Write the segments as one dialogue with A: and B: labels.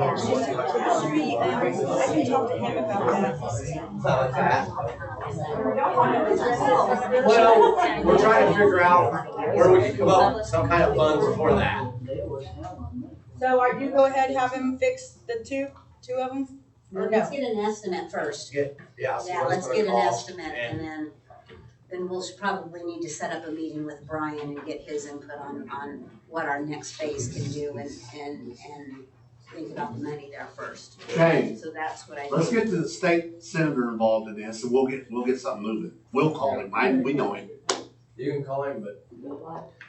A: Actually, um, I can talk to him about that.
B: Well, we're trying to figure out where we can come up with some kind of funds for that.
A: So are you go ahead, have him fix the two, two of them? Or no?
C: Let's get an estimate first.
B: Yeah. so
C: Yeah, let's
B: put a
C: get an
B: call.
C: estimate and then, then we'll s- probably need to set up a meeting with Brian and get his input on, on what our next phase can do and, and, and think about the money there first.
D: Okay,
C: So that's what I
D: let's
C: think.
D: get the state senator involved in this, and we'll get, we'll get something moving. We'll call him, I, we know him.
B: You can call him, but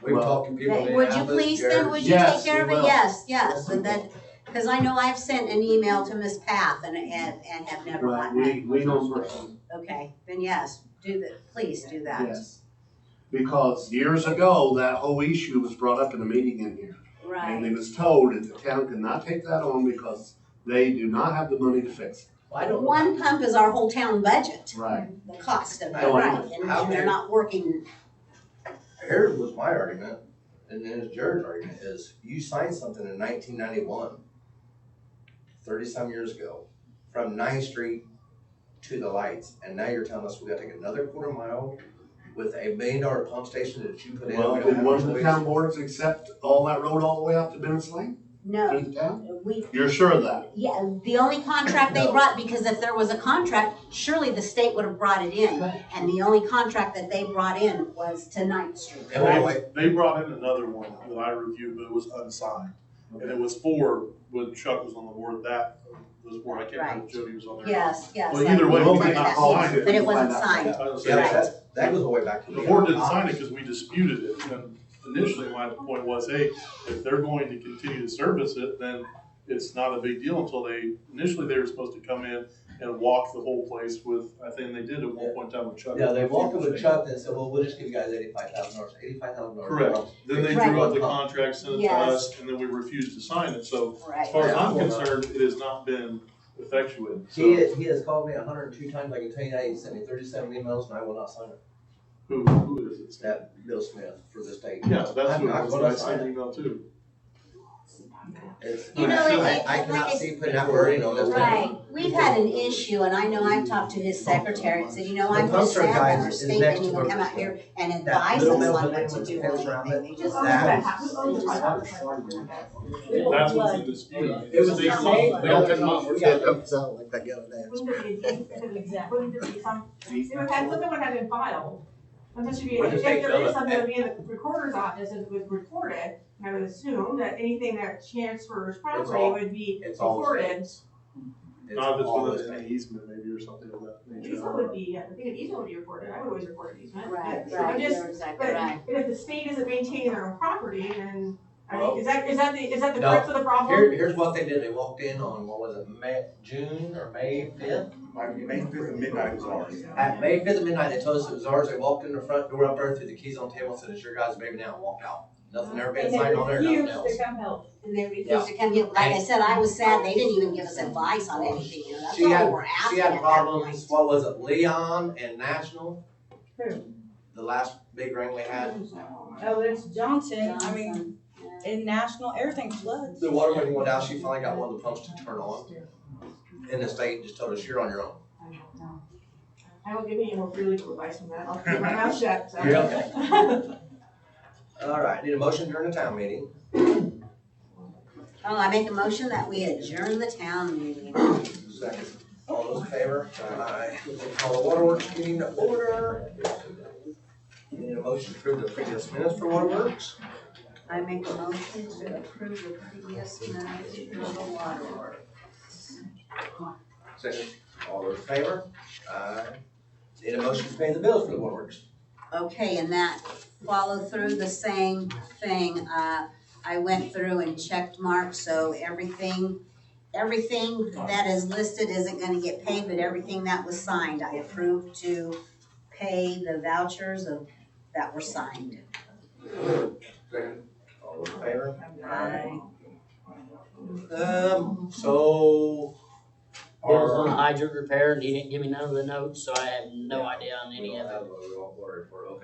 B: we've talked to people. in
C: Hey, Would you
B: Indianapolis,
C: please then, would you
D: Yes,
C: take care of
D: we
C: it?
D: will.
C: Yes, yes, and then, cause I know I've sent an email to Ms. Path and, and, and have never
D: Well,
C: gotten it.
D: we, we know him personally,
C: Okay, then yes, do the, please do that.
D: yes. Because years ago, that whole issue was brought up in a meeting in here. And
C: Right,
D: it was told that the town cannot take that on because they do not have the money to fix
B: Well, I don't know.
C: one pump is our whole town budget.
D: it. Right.
C: the cost of it,
B: How-
C: right, and
B: how
C: and they're
B: many-
C: not working,
B: Here was my argument, and then it's Jared's argument, is you signed something in nineteen ninety-one, thirty-some years ago, from Ninth Street to the lights, and now you're telling us we gotta take another quarter mile with a million dollar pump station that you put in.
D: Well,
B: we don't
D: did
B: have
D: one of
B: a
D: the
B: choice.
D: town boards accept all that road all the way out to Bennett's Lane,
C: no,
D: through the town?
C: we,
D: You're sure of that?
C: yeah, the only contract they
B: No.
C: brought, because if there was a contract, surely the state would have brought it in, and the only contract that they brought in was to Ninth Street.
B: And wait, wait,
E: They, they brought in another one that I reviewed, but it was unsigned. And it was for, when Chuck was on the board, that was where I can't remember if Jody was on there.
C: Yes, yes.
E: Well,
C: that-
E: either way,
D: we
C: that-
D: did not
C: that-
D: sign it.
C: But it wasn't
E: I
C: signed,
E: was gonna
B: Yeah,
E: say,
B: but that's, that goes all the way back to.
E: The board didn't sign it because we disputed it, and initially my point was, hey, if they're going to continue to service it, then it's not a big deal until they, initially they were supposed to come in and walk the whole place with, I think they did at one point in time with Chuck.
F: Yeah, they walked up with Chuck and said, well, we'll just give you guys eighty-five thousand dollars, eighty-five thousand dollars.
E: Correct. Then they drew up the
F: Right.
E: contract, sent it to
C: Yes.
E: us, and then we refused to sign it, so as
C: right,
E: far as I'm concerned, it has not been effectuated, so.
F: He has, he has called me hundred and two times, I can tell you that, he sent me thirty-seven emails and I will not sign it.
E: Who, who is it?
F: That Bill Smith for the state.
E: Yeah, that's
F: I'm
E: who it
F: not
E: was,
F: gonna
E: I
F: sign
E: sent
F: it.
E: an email too.
F: It's-
C: You know,
F: I-
C: it- it-
F: I
C: like
F: cannot see
C: it's-
F: putting that wording on this. thing.
C: right, we've had an issue, and I know I've talked to his secretary, and said, you know,
F: The
C: I'm just
F: poster
C: sad that
F: guy
C: our
F: is
C: state
F: next
C: didn't
F: to
C: even come
F: Burger's
C: out here and
F: That
C: advise us
F: little
C: on
F: metal
C: what
F: building
C: to
F: with
C: do
F: the
C: with
F: fence around
C: anything, they just.
F: That is-
E: That's what's in dispute.
B: It was the
E: They-
B: same-
E: they all took off.
F: We got dumped out like that the other day.
G: It would have, something would have been filed. Unless you,
F: Or
G: if
F: just
G: there
F: take
G: is
F: notice.
G: something that would be in the recorder's office and was recorded, and I would assume that anything that transfers property
F: all-
G: would be
F: It's all the same.
G: recorded.
F: It's
E: Not if it's
F: all the
E: within
F: same.
E: an easement maybe or something of that nature.
G: Easement would be, I think an easement would be recorded, I would always record an easement.
C: Right,
G: But
C: right,
G: I'm just,
C: you're exactly
G: but
C: right.
G: but if the state isn't maintaining their own property, then, I
F: Well-
G: mean, is that, is that the, is that the
F: No.
G: crux of the problem?
F: Here, here's what they did, they walked in on, what was it, May, June or May fifth?
B: May fifth at midnight was ours.
F: At May fifth at midnight, they told us it was ours, they walked in the front door up there, threw the keys on the table, said, it's your guys' baby now, and walked out. Nothing ever been signed on there, nothing else.
G: come help.
C: And they refused to come get, like I said, I was sad, they didn't even give us advice on anything, you know, that's
F: She had-
C: all we were
F: She
C: asking at
F: had
C: that point.
F: problems, what was it, Leon and National?
A: Who?
F: The last big ring we had.
A: Oh, there's Johnson, I mean,
C: Johnson, yeah.
A: in National, everything floods.
F: The water went went out, she finally got one of the pumps to turn on. And the state just told us, you're on your own.
G: I won't give you any more free legal advice on that, I'll keep my mouth shut, so.
F: You're okay. All right, need a motion during the town meeting.
C: Oh, I make a motion that we adjourn the town meeting.
F: Second. All those in favor? Aye. Call the waterworks meeting to order. Need a motion to approve the previous minutes for waterworks.
C: I make a motion to approve the E previous minutes for the water work.
F: Second. All those in favor? Aye. Need a motion to pay the bills for the waterworks.
C: Okay, and that follow through the same thing, uh, I went through and checked mark, so everything, everything that is listed isn't gonna get paid, but everything that was signed, I approved to pay the vouchers of, that were signed.
F: Second. All those in favor?
C: Aye.
F: Um, so.
H: Bill was on the hydrant repair and he didn't give me none of the notes, so I have no idea on
F: We
H: any
F: don't
H: of it.
F: have a water report, okay.